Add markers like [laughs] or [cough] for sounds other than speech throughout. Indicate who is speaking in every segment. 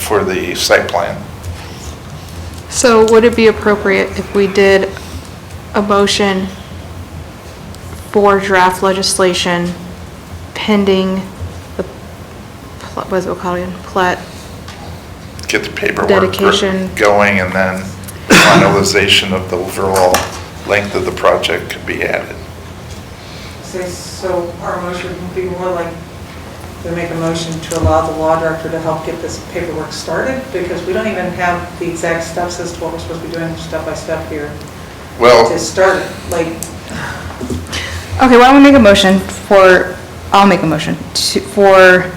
Speaker 1: for the site plan.
Speaker 2: So would it be appropriate if we did a motion for draft legislation pending the, pl- what is it called again, plat?
Speaker 1: Get the paperwork
Speaker 2: Dedication.
Speaker 1: going and then finalization of the overall length of the project could be added.
Speaker 3: So, so our motion would be more like to make a motion to allow the law director to help get this paperwork started, because we don't even have the exact steps as to what we're supposed to be doing step by step here to
Speaker 1: Well,
Speaker 3: start, like,
Speaker 4: Okay, why don't we make a motion for, I'll make a motion to, for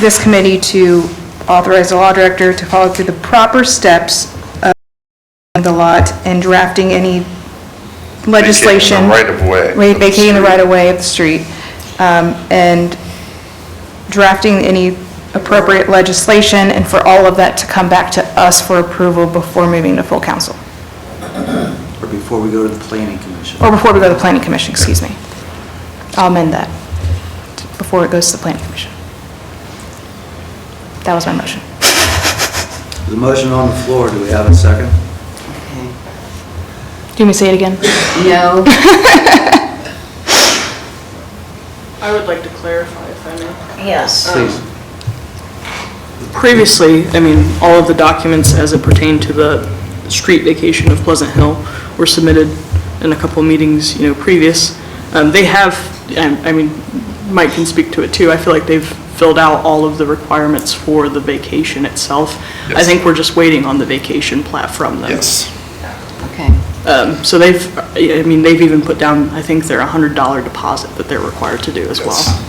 Speaker 4: this committee to authorize the law director to follow through the proper steps of the lot and drafting any legislation.
Speaker 1: Vacating the right of way
Speaker 4: Wait,
Speaker 1: of the
Speaker 4: Vacating the
Speaker 1: street.
Speaker 4: right of way of the street, um, and drafting any appropriate legislation, and for all of that to come back to us for approval before moving to full council,
Speaker 5: or before we go to the planning commission.
Speaker 4: or before we go to the planning commission, excuse me. I'll amend that, before it goes to the planning commission. That was my motion.
Speaker 5: The motion on the floor, do we have a second?
Speaker 4: Do you want me to say it again?
Speaker 6: No.
Speaker 7: I would like to clarify if I may.
Speaker 6: Yes.
Speaker 5: Please.
Speaker 7: Previously, I mean, all of the documents as it pertained to the street vacation of Pleasant Hill were submitted in a couple meetings, you know, previous. Um, They have, and, I mean, Mike can speak to it too, I feel like they've filled out all of the requirements for the vacation itself. I
Speaker 1: Yes.
Speaker 7: think we're just waiting on the vacation plat from them.
Speaker 1: yes,
Speaker 6: Okay.
Speaker 7: Um, So they've, uh, I mean, they've even put down, I think, their $100 deposit that they're required to do as well.
Speaker 1: Yes.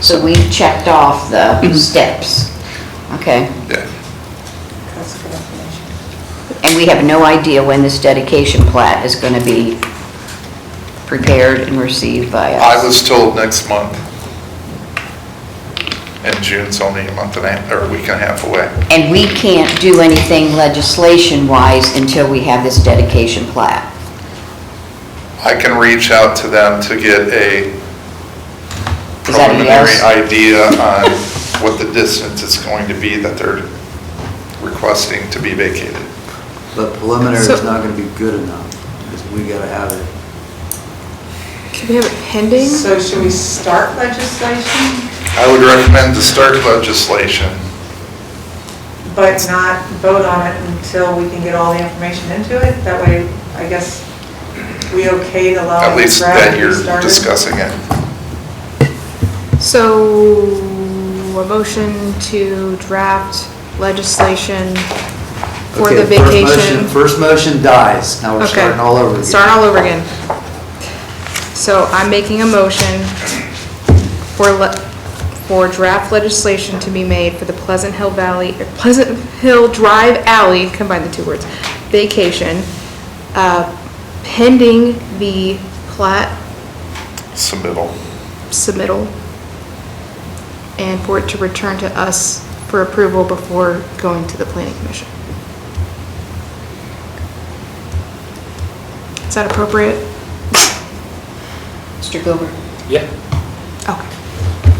Speaker 6: So we checked off the steps. Okay.
Speaker 1: yeah.
Speaker 3: that's good information.
Speaker 6: And we have no idea when this dedication plat is going to be prepared and received by
Speaker 1: I
Speaker 6: us.
Speaker 1: was told next month. And June's only a month and a, half- or a week and a half away.
Speaker 6: And we can't do anything legislation-wise until we have this dedication plat.
Speaker 1: I can reach out to them to get a
Speaker 6: Is that a
Speaker 1: preliminary
Speaker 6: yes?
Speaker 1: idea on what the distance is going to be that they're requesting to be vacated.
Speaker 5: But preliminary is
Speaker 2: So-
Speaker 5: not going to be good enough, because we got to have it.
Speaker 2: Can we have it pending?
Speaker 3: So should we start legislation,
Speaker 1: I would recommend to start legislation.
Speaker 3: but not vote on it until we can get all the information into it? That way, I guess, we okay to allow.
Speaker 1: At
Speaker 3: the
Speaker 1: least
Speaker 3: draft to
Speaker 1: that
Speaker 3: be
Speaker 1: you're
Speaker 3: Oh, started?
Speaker 1: discussing it.
Speaker 2: So, a motion to draft legislation for the
Speaker 5: Okay, first motion-
Speaker 2: vacation.
Speaker 5: First motion dies, now we're
Speaker 2: Okay.
Speaker 5: starting all over again.
Speaker 2: Starting all over again. So I'm making a motion for, le- for draft legislation to be made for the Pleasant Hill Valley, or Pleasant Hill Drive Alley, combine the two words, vacation, uh, pending the plat
Speaker 1: Submittal.
Speaker 2: submittal and for it to return to us for approval before going to the planning commission. Is that appropriate?
Speaker 6: Mr. Gilbert?
Speaker 8: Yeah,
Speaker 2: Okay.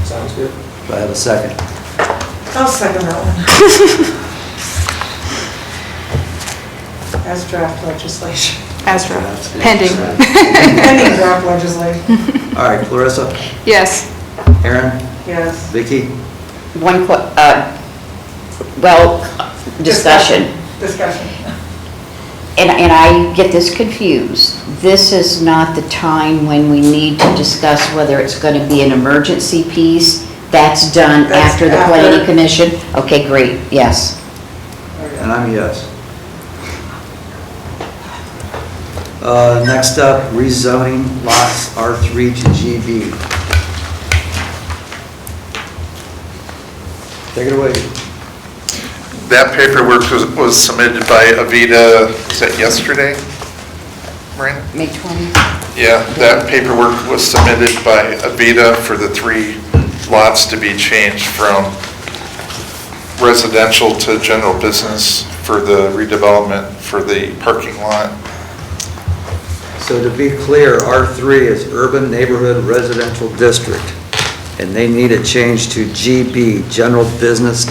Speaker 8: sounds good.
Speaker 5: Do I have a second?
Speaker 3: I'll second that one. As draft legislation, [laughs]
Speaker 2: As
Speaker 5: Perhaps.
Speaker 2: drafted, pending.
Speaker 3: pending draft legislation,
Speaker 5: All right, Clarissa,
Speaker 2: Yes.
Speaker 5: Aaron,
Speaker 3: yes.
Speaker 5: Vicky,
Speaker 6: One que, uh, well, discussion.
Speaker 3: Discussion.
Speaker 6: And, and I get this confused. This is not the time when we need to discuss whether it's going to be an emergency piece. That's done
Speaker 3: That's
Speaker 6: after the
Speaker 3: after.
Speaker 6: planning commission? Okay, great, yes.
Speaker 5: and I'm a yes. Uh, Next up, rezoning lots R3 to GB. Take it away.
Speaker 1: That paperwork was, was submitted by Avita, is that yesterday? Maureen?
Speaker 6: May 20?
Speaker 1: Yeah, that paperwork was submitted by Avita for the three lots to be changed from residential to general business for the redevelopment for the parking lot.
Speaker 5: So to be clear, R3 is Urban Neighborhood Residential District, and they need a change to GB, General Business